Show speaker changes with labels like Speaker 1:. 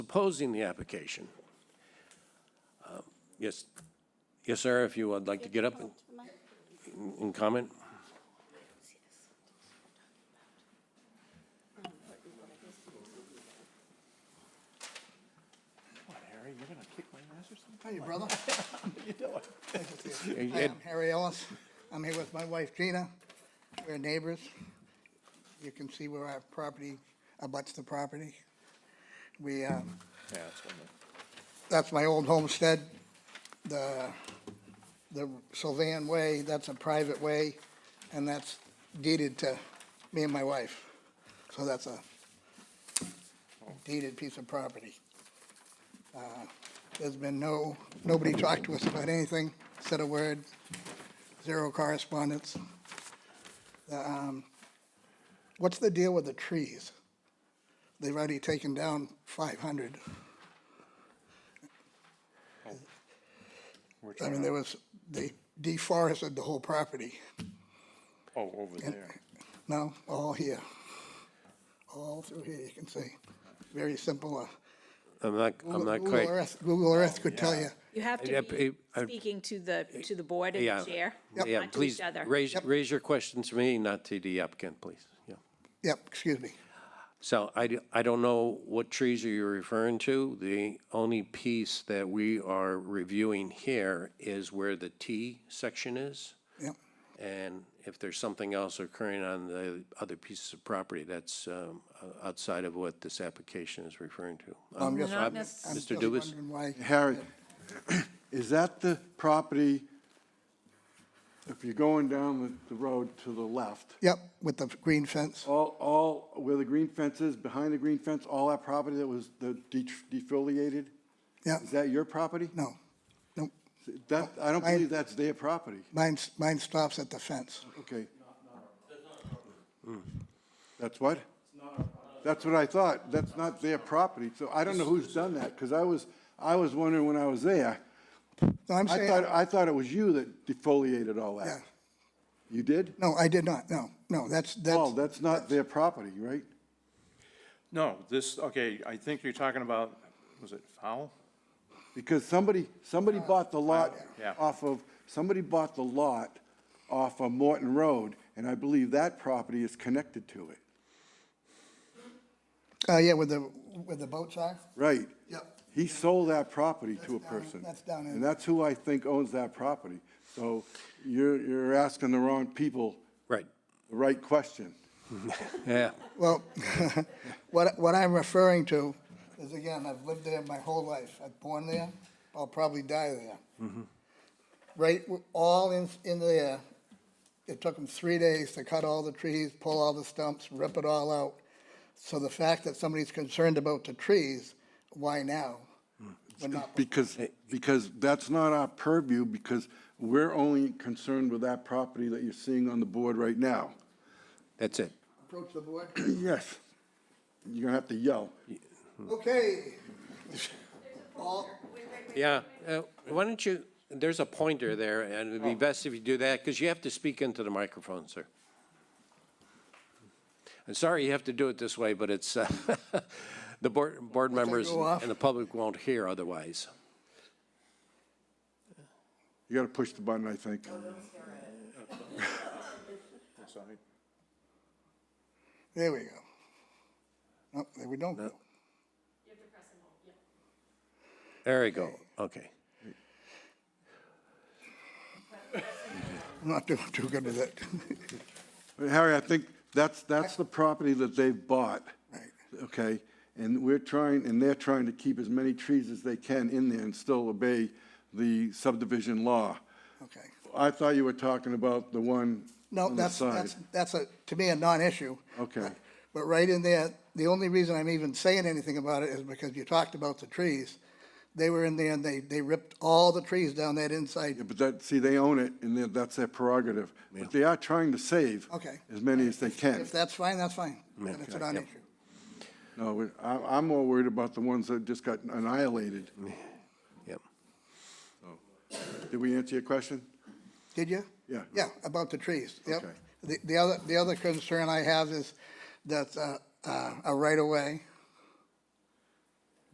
Speaker 1: opposing the application. Uh, Yes, yes, sir, if you would like to get up and- and comment?
Speaker 2: How you, brother?
Speaker 1: Hey,
Speaker 2: Hi,
Speaker 1: Ed,
Speaker 2: I'm Harry Ellis. I'm here with my wife Gina. We're neighbors. You can see where our property abuts the property. We, uh, that's my old homestead. The, the Sylvan Way, that's a private way, and that's deeded to me and my wife. So that's a deeded piece of property. Uh, There's been no, nobody talked to us about anything, said a word, zero correspondence. The, um, What's the deal with the trees? They've already taken down five hundred. I mean, there was, they deforested the whole property.
Speaker 3: Oh, over there.
Speaker 2: No, all here. All through here, you can see. Very simple. uh,
Speaker 1: I'm not, I'm not
Speaker 2: Google
Speaker 1: quite,
Speaker 2: Earth- Google Earth could tell you.
Speaker 4: You have
Speaker 1: Yeah,
Speaker 4: to
Speaker 1: p-
Speaker 4: be
Speaker 1: I-
Speaker 4: speaking to the, to the board and
Speaker 1: yeah.
Speaker 4: the chair,
Speaker 1: Yeah,
Speaker 4: not to each
Speaker 1: please,
Speaker 4: other.
Speaker 1: raise,
Speaker 2: Yep.
Speaker 1: raise your questions to me, not to the applicant, please. Yeah.
Speaker 2: Yep, excuse me.
Speaker 1: So I, do- I don't know what trees are you referring to. The only piece that we are reviewing here is where the T section is.
Speaker 2: Yep,
Speaker 1: And if there's something else occurring on the other pieces of property, that's um, o- outside of what this application is referring to. Um,
Speaker 2: just-
Speaker 1: uh,
Speaker 4: Not necess-
Speaker 2: I'm
Speaker 1: Mr.
Speaker 2: just
Speaker 1: Dubus?
Speaker 2: wondering why-
Speaker 5: Harry, is that the property, if you're going down the- the road to the left,
Speaker 2: Yep, with the green fence.
Speaker 5: all, all, where the green fence is, behind the green fence, all that property that was the de- defoliated?
Speaker 2: Yeah.
Speaker 5: Is that your property?
Speaker 2: No, no,
Speaker 5: That, I don't
Speaker 2: I-
Speaker 5: believe that's their property.
Speaker 2: mine, s- mine stops at the fence.
Speaker 5: Okay. That's what? That's what I thought. That's not their property. So I don't know who's done that, because I was, I was wondering when I was there.
Speaker 2: No, I'm
Speaker 5: I thought,
Speaker 2: saying,
Speaker 5: I thought it was you that defoliated all
Speaker 2: yeah,
Speaker 5: that. You did?
Speaker 2: no, I did not, no, no, that's,
Speaker 5: Paul,
Speaker 2: that's,
Speaker 5: Oh, that's not their property, right?
Speaker 3: No, this, okay, I think you're talking about, was it Fowl?
Speaker 5: Because somebody, somebody
Speaker 2: Uh,
Speaker 5: bought the lot
Speaker 3: Yeah.
Speaker 5: off of, somebody bought the lot off of Morton Road, and I believe that property is connected to it.
Speaker 2: uh, yeah, where the, where the boats are?
Speaker 5: Right.
Speaker 2: Yep.
Speaker 5: He sold that property to a
Speaker 2: That's down in-
Speaker 5: person.
Speaker 2: that's down in-
Speaker 5: And that's who I think owns that property. So you're, you're asking the wrong people
Speaker 1: Right,
Speaker 5: the right question.
Speaker 1: yeah.
Speaker 2: Well, what, what I'm referring to is, again, I've lived there my whole life. I've born there, I'll probably die there. Right, w- all in, in there, it took them three days to cut all the trees, pull all the stumps, rip it all out. So the fact that somebody's concerned about the trees, why now? We're not-
Speaker 5: Because, because that's not our purview, because we're only concerned with that property that you're seeing on the board right now.
Speaker 1: That's it.
Speaker 2: Approach the board.
Speaker 5: Yes. You're gonna have to yell.
Speaker 2: Okay. All,
Speaker 1: Yeah, uh, why don't you, there's a pointer there, and it'd
Speaker 2: Oh.
Speaker 1: be best if you do that, because you have to speak into the microphone, sir. I'm sorry you have to do it this way, but it's, uh, the board, board members
Speaker 2: go off.
Speaker 1: and the public won't hear otherwise.
Speaker 5: You gotta push the button, I think.
Speaker 3: Sorry.
Speaker 2: there we go. No, there we don't go.
Speaker 1: There we go, okay.
Speaker 2: I'm not doing too good with it.
Speaker 5: But Harry, I think that's, that's the property that they've bought.
Speaker 2: Right.
Speaker 5: Okay, and we're trying, and they're trying to keep as many trees as they can in there and still obey the subdivision law.
Speaker 2: Okay.
Speaker 5: I thought you were talking about the one
Speaker 2: No,
Speaker 5: on the
Speaker 2: that's,
Speaker 5: side.
Speaker 2: that's, that's a, to me, a non-issue.
Speaker 5: Okay.
Speaker 2: But right in there, the only reason I'm even saying anything about it is because you talked about the trees. They were in there and they, they ripped all the trees down that
Speaker 5: Yeah,
Speaker 2: inside.
Speaker 5: But that, see, they own it, and that- that's their prerogative. But they are trying to save
Speaker 2: Okay.
Speaker 5: as many as they can.
Speaker 2: If that's fine, that's fine. But it's a non-issue.
Speaker 5: No, we- I, I'm more worried about the ones that just got annihilated.
Speaker 1: Yep.
Speaker 5: Did we answer your question?
Speaker 2: Did you?
Speaker 5: Yeah.
Speaker 2: Yeah, about the trees, yep.
Speaker 5: Okay.
Speaker 2: The, the other, the other concern I have is that, uh, uh, a right-of-way